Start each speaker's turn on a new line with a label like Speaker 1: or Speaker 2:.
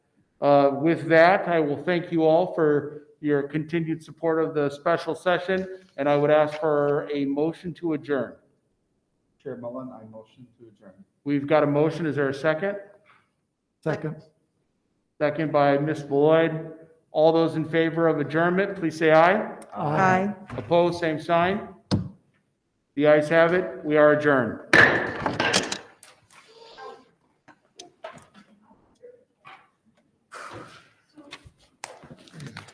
Speaker 1: Uh, With that, I will thank you all for your continued support of the special session, and I would ask for a motion to adjourn.
Speaker 2: Chair Mullen, I motion to adjourn.
Speaker 1: We've got a motion, is there a second?
Speaker 2: Second.
Speaker 1: Second by Ms. Lloyd. All those in favor of adjournment, please say aye.
Speaker 3: Aye.
Speaker 1: Opposed, same sign. The ayes have it, we are adjourned.